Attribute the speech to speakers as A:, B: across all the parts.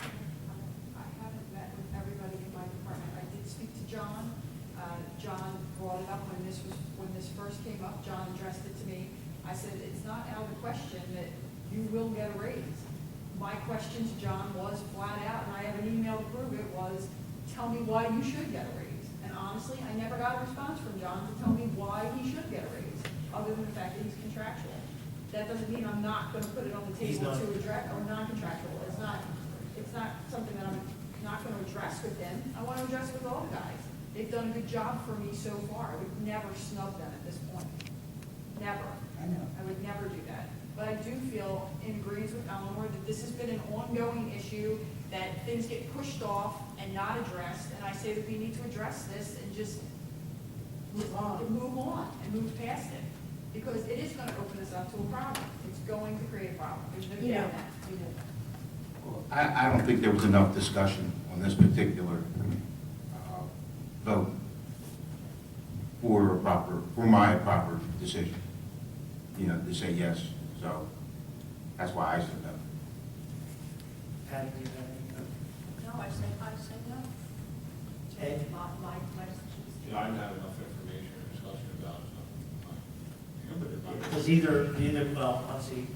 A: uh, will get a raise. My question to John was flat out, and I have an email to prove it, was, tell me why you should get a raise. And honestly, I never got a response from John to tell me why he should get a raise, other than the fact that he's contractual. That doesn't mean I'm not gonna put it on the
B: He's
A: table
B: not.
A: to address, or non-contractual, it's not, it's not something that I'm not gonna address with them. I wanna address with all the guys. They've done a good job for me so far, I would never snub them at this point, never.
C: I know.
A: I would never do that. But I do feel, in agreement with Eleanor, that this has been an ongoing issue, that things get pushed off and not addressed, and I say that we need to address this and just move on, move on and move past it. Because it is gonna open us up to a problem. It's going to create a problem. There's no
C: You know.
A: doubt that. We know that.
D: I, I don't think there was enough discussion on this particular uh, vote for a proper, for my proper decision, you know, to say yes. So that's why I said no.
B: Patty, do you have any?
A: No, I said, I said no.
B: Ed?
A: My, my, my.
E: Yeah, I don't have enough information or discussion about it, so. I- I'm good about it.
B: Because either, either, well, let's see,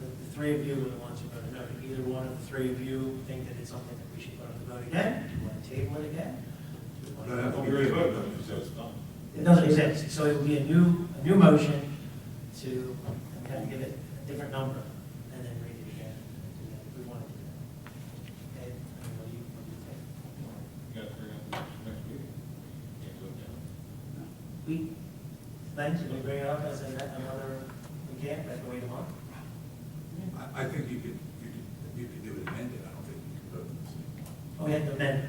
B: the, the three of you are the ones who voted no. Either one of the three of you think that it's something that we should put on the vote again? Do you want to table it again? Do you want to-
D: No, no,
E: We already voted on it, so it's done.
B: It doesn't exist, so it would be a new, a new motion to, I'm gonna give it a different number, and then read it again, and do that if we wanted to. do that. Okay, I mean, what do you, what do you think?
E: You gotta bring up the next- next meeting. Can't do it now.
B: We, then, should we bring it up as a- another, we can't, like, wait a month?
F: I, I think you could, you could, you could do it amended, I don't think you could vote.
B: Oh, we have to amend. it.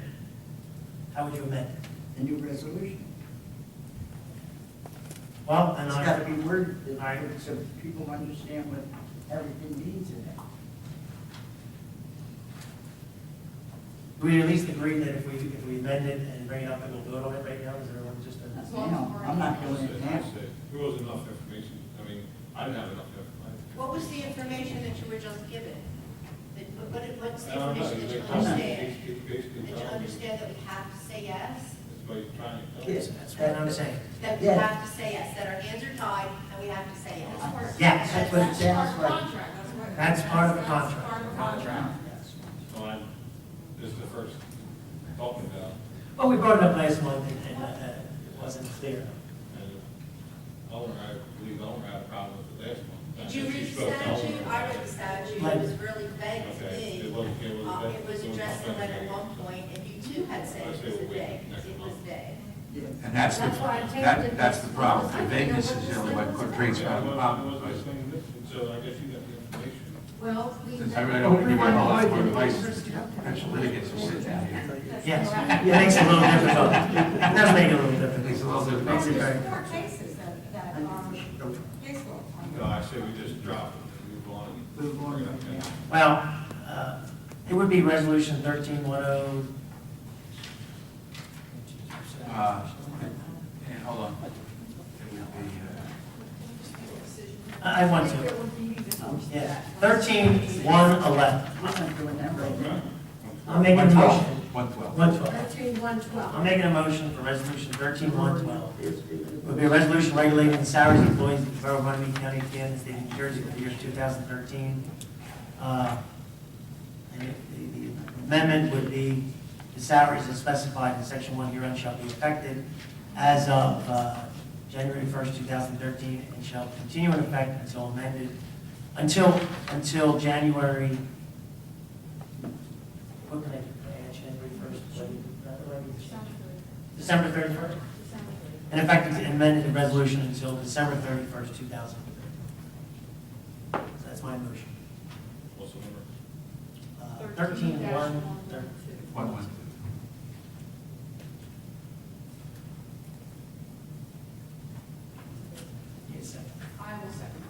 B: How would you amend? it?
C: A new resolution.
B: Well, and
C: It's got to
B: I,
C: be worded
B: I-
C: so people understand what everything means in it.
B: we at least agreed that if we, if we amend it and bring it up, and we'll vote on it right now, is everyone just? a-
A: That's
C: You
A: all I'm
C: know, I'm not
E: I
C: doing
E: said-
C: it
E: I
C: now.
E: said, There wasn't enough information, I mean, I didn't have enough information.
G: What was the information that you were just given? That- what- What, what's the
E: I don't know,
G: information that you
E: it's
G: understand?
E: basically- it's basically
G: That you
E: telling me-
G: understand that we have to say yes?
E: That's what you're trying to tell me.
B: Yes, that's what I'm saying.
G: That we
C: Yeah.
G: have to say yes, that our hands are tied and we have to say yes?
B: Yes, that's what
A: That's
B: it
A: part
C: sounds
A: of the
C: like.
A: contract. That's what-
B: That's part of the
A: that's
B: contract.
A: Part of the contract.
E: So I'm, this is the first talking about,
B: Well, we brought it up last month and, and uh, it wasn't clear.
E: and Eleanor, I believe Eleanor had a problem with the last one.
G: Did you
E: She
G: read the
E: spoke to Eleanor
G: statute? I
E: about
G: read
E: it.
G: the statute, it was really vague
E: Okay,
G: to
E: it
G: me.
E: wasn't, it wasn't.
G: Uh, It was
E: wasn't
G: addressed in letter at
E: comprehensive.
G: one point, and you too had said
E: I
G: it
E: say
G: was
E: we'll wait
G: vague,
E: next
G: it was
E: month.
G: vague.
C: Yeah.
D: And that's the,
G: That's why I tabled
D: that,
G: it.
D: that's the problem. The vagueness is really what creates the
E: Yeah, I wasn't, I
D: problem.
E: wasn't saying this, and so I guess you got the information.
G: Well, we.
D: Since I really don't think you want to allow for the place, potential litigants to sit down here.
B: Yes, it makes it a little difficult. It does make it a little difficult.
D: Makes it a little difficult.
B: Makes it very.
H: There are cases that, that are case law.
E: No, I say we just drop it, and move on.
C: Move on, yeah.
B: Well, uh, it would be resolution thirteen one oh.
D: Uh, And hold on. It would be, uh,
B: I I want
A: I think
B: to, Oh,
A: it would be easy to force
B: yeah,
A: that.
B: thirteen one eleven.
C: I'm not doing that right now.
B: I'm making a motion.
D: One twelve.
B: One twelve.
H: Thirteen one twelve.
B: I'm making a motion for resolution thirteen one twelve. It would be a resolution regulating the salaries of employees of the Borough of Miami County, Indiana, State of New Jersey for the years two thousand thirteen. uh, And it- the the amendment would be, the salaries as specified in section one herein shall be effective as of uh, January first, two thousand thirteen, and shall continue in effect until amended, until, until January, what can I, uh, January first, December thirty-first? In effect, it's amended the resolution until December thirty-first, two thousand and thirteen. So that's my motion. Uh,
E: What's the number?
B: Thirteen one,
A: 13-112.
D: One, one, two.
B: yes, sir.
A: I will second.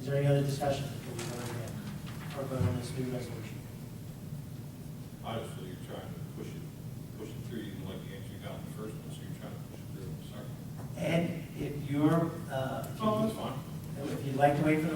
B: Is there any other discussion before we vote again, or vote on this new resolution?
E: Obviously, you're trying to push it, push it through, you didn't like the answer you got in the first one, so you're trying to push it through, sorry.
B: Ed, if you're, uh,
E: Oh, that's fine.
B: if you'd like to wait for the